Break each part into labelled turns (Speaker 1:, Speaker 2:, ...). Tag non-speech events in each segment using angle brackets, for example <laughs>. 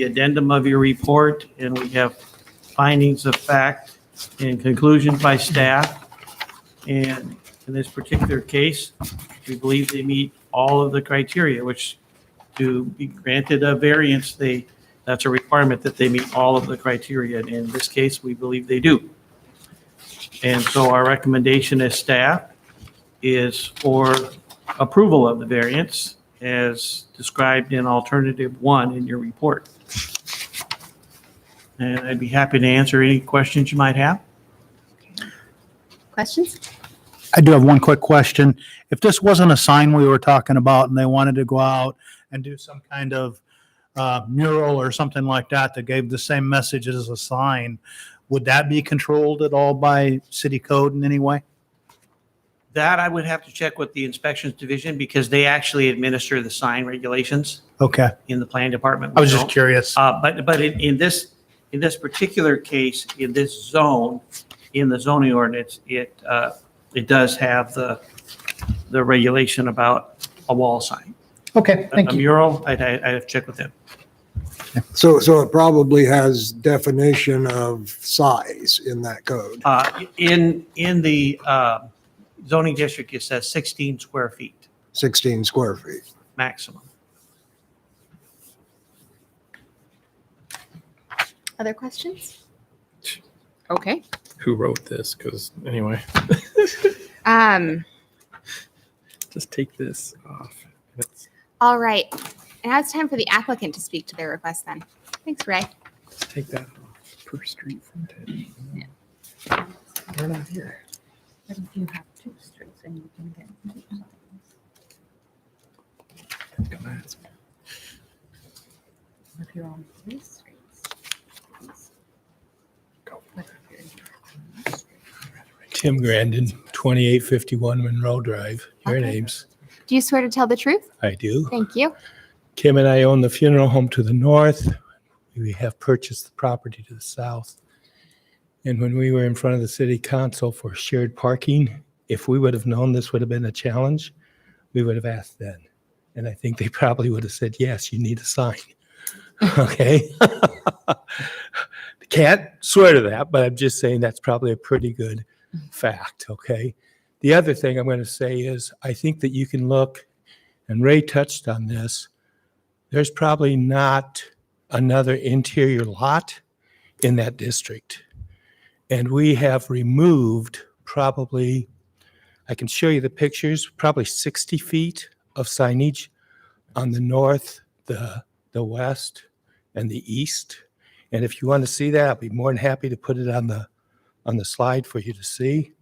Speaker 1: the addendum of your report, and we have findings of fact and conclusions by staff. And in this particular case, we believe they meet all of the criteria, which to be granted a variance, they, that's a requirement that they meet all of the criteria. And in this case, we believe they do. And so our recommendation as staff is for approval of the variance as described in alternative one in your report. And I'd be happy to answer any questions you might have.
Speaker 2: Questions?
Speaker 3: I do have one quick question. If this wasn't a sign we were talking about and they wanted to go out and do some kind of uh, mural or something like that that gave the same message as a sign, would that be controlled at all by city code in any way?
Speaker 1: That I would have to check with the inspections division because they actually administer the sign regulations
Speaker 3: Okay,
Speaker 1: in the planning department.
Speaker 3: I was
Speaker 1: We
Speaker 3: just
Speaker 1: don't.
Speaker 3: curious.
Speaker 1: Uh, but, but in, in this, in this particular case, in this zone, in the zoning ordinance, it, uh, it does have the, the regulation about a wall sign.
Speaker 3: Okay, thank
Speaker 1: A
Speaker 3: you.
Speaker 1: mural, I'd, I'd I'd have to check with them.
Speaker 4: So, so it probably has definition of size in that code.
Speaker 1: Uh, In, in the uh, zoning district, it says 16 square feet
Speaker 4: 16 square feet.
Speaker 1: maximum.
Speaker 2: Other questions? Okay.
Speaker 5: who wrote this because anyway
Speaker 2: Um,
Speaker 5: just take this off That's-
Speaker 2: all right. And now it's time for the applicant to speak to their request then. Thanks, Ray.
Speaker 5: just take that off per street frontage we're not here
Speaker 6: But if you have two streets and you can get.
Speaker 5: Come on.
Speaker 6: If you're on three streets. it's- But if you're in one street,
Speaker 7: Tim Grandin, 2851 Monroe Drive, your
Speaker 2: Okay.
Speaker 7: names.
Speaker 2: Do you swear to tell the truth?
Speaker 7: I do.
Speaker 2: Thank you.
Speaker 7: Kim and I own the funeral home to the north. We have purchased the property to the south. And when we were in front of the city council for shared parking, if we would have known this would have been a challenge, we would have asked then. And I think they <laughs> probably would have said, yes, you need a sign. <laughs> Okay? <laughs> Can't swear to that, but I'm just saying that's probably a pretty good fact, okay? The other thing I'm going to say is, I think that you can look, and Ray touched on this, there's probably not another interior lot in that district. And we have removed probably, I can show you the pictures, probably 60 feet of signage on the north, the, the west, and the east. And if you want to see that, I'd be more than happy to put it on the, on the slide for you to see.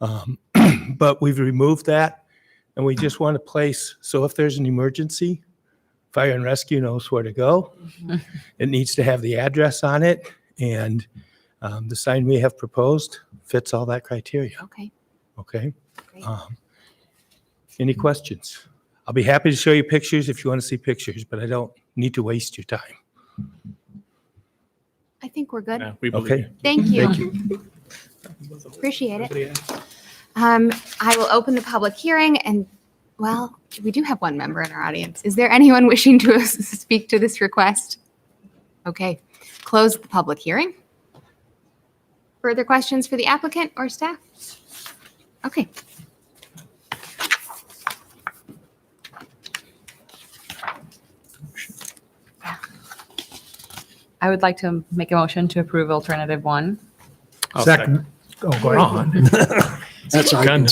Speaker 7: Um, <clears throat> But we've removed that, and we just want to place, so if there's an emergency, fire and rescue knows where to go. It needs to have the address on it, and um, the sign we have proposed fits all that criteria,
Speaker 2: Okay.
Speaker 7: okay?
Speaker 2: Great.
Speaker 7: Um, Any questions? I'll be happy to show you pictures if you want to see pictures, but I don't need to waste your time.
Speaker 2: I think we're good.
Speaker 5: Yeah, we believe
Speaker 7: Okay.
Speaker 5: you.
Speaker 2: Thank you. Appreciate it. Um, I will open the public hearing and, well, we do have one member in our audience. Is there anyone wishing to <laughs> speak to this request? Okay, close the public hearing. Further questions for the applicant or staff? Okay.
Speaker 8: I would like to make a motion to approve alternative one.
Speaker 5: I'll
Speaker 3: Second. Oh, go ahead.
Speaker 5: Ron,
Speaker 4: That's I
Speaker 5: Gun, no.
Speaker 4: can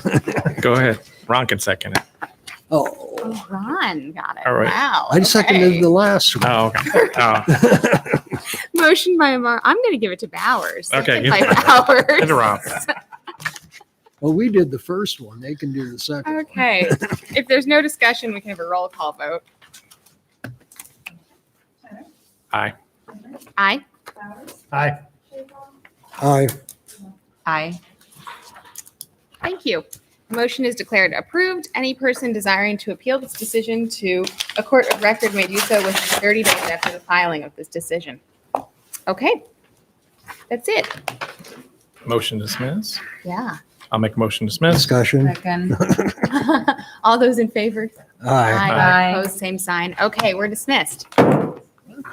Speaker 4: second. <laughs>
Speaker 5: go ahead ron can second it
Speaker 4: Oh,
Speaker 2: Oh, Ron got it.
Speaker 5: All right.
Speaker 2: Wow.
Speaker 4: I seconded
Speaker 2: okay.
Speaker 4: the last one.
Speaker 5: oh okay oh,
Speaker 2: Motion by Amar. I'm going to give it to Bowers.
Speaker 5: Okay,
Speaker 2: Second
Speaker 5: give
Speaker 2: By
Speaker 5: it to-
Speaker 2: Bowers.
Speaker 5: give it to Ron.
Speaker 4: <laughs>
Speaker 2: <laughs>
Speaker 4: Well, we did the first one. They can do the second. one.
Speaker 2: Okay. if there's no discussion, we can have a roll call vote.
Speaker 5: Aye.
Speaker 2: Aye.
Speaker 3: Aye.
Speaker 4: Aye.
Speaker 8: Aye.
Speaker 2: Thank you. The Motion is declared approved. Any person desiring to appeal this decision to a court of record may do so within 30 days after the filing of this decision. Okay. That's it.
Speaker 5: motion to dismiss
Speaker 2: Yeah. <laughs>
Speaker 5: i'll make a motion to dismiss
Speaker 4: Discussion.
Speaker 8: Second.
Speaker 2: All those in favor?
Speaker 4: Aye.
Speaker 5: Aye.
Speaker 2: Opposed, same sign. Okay, we're dismissed.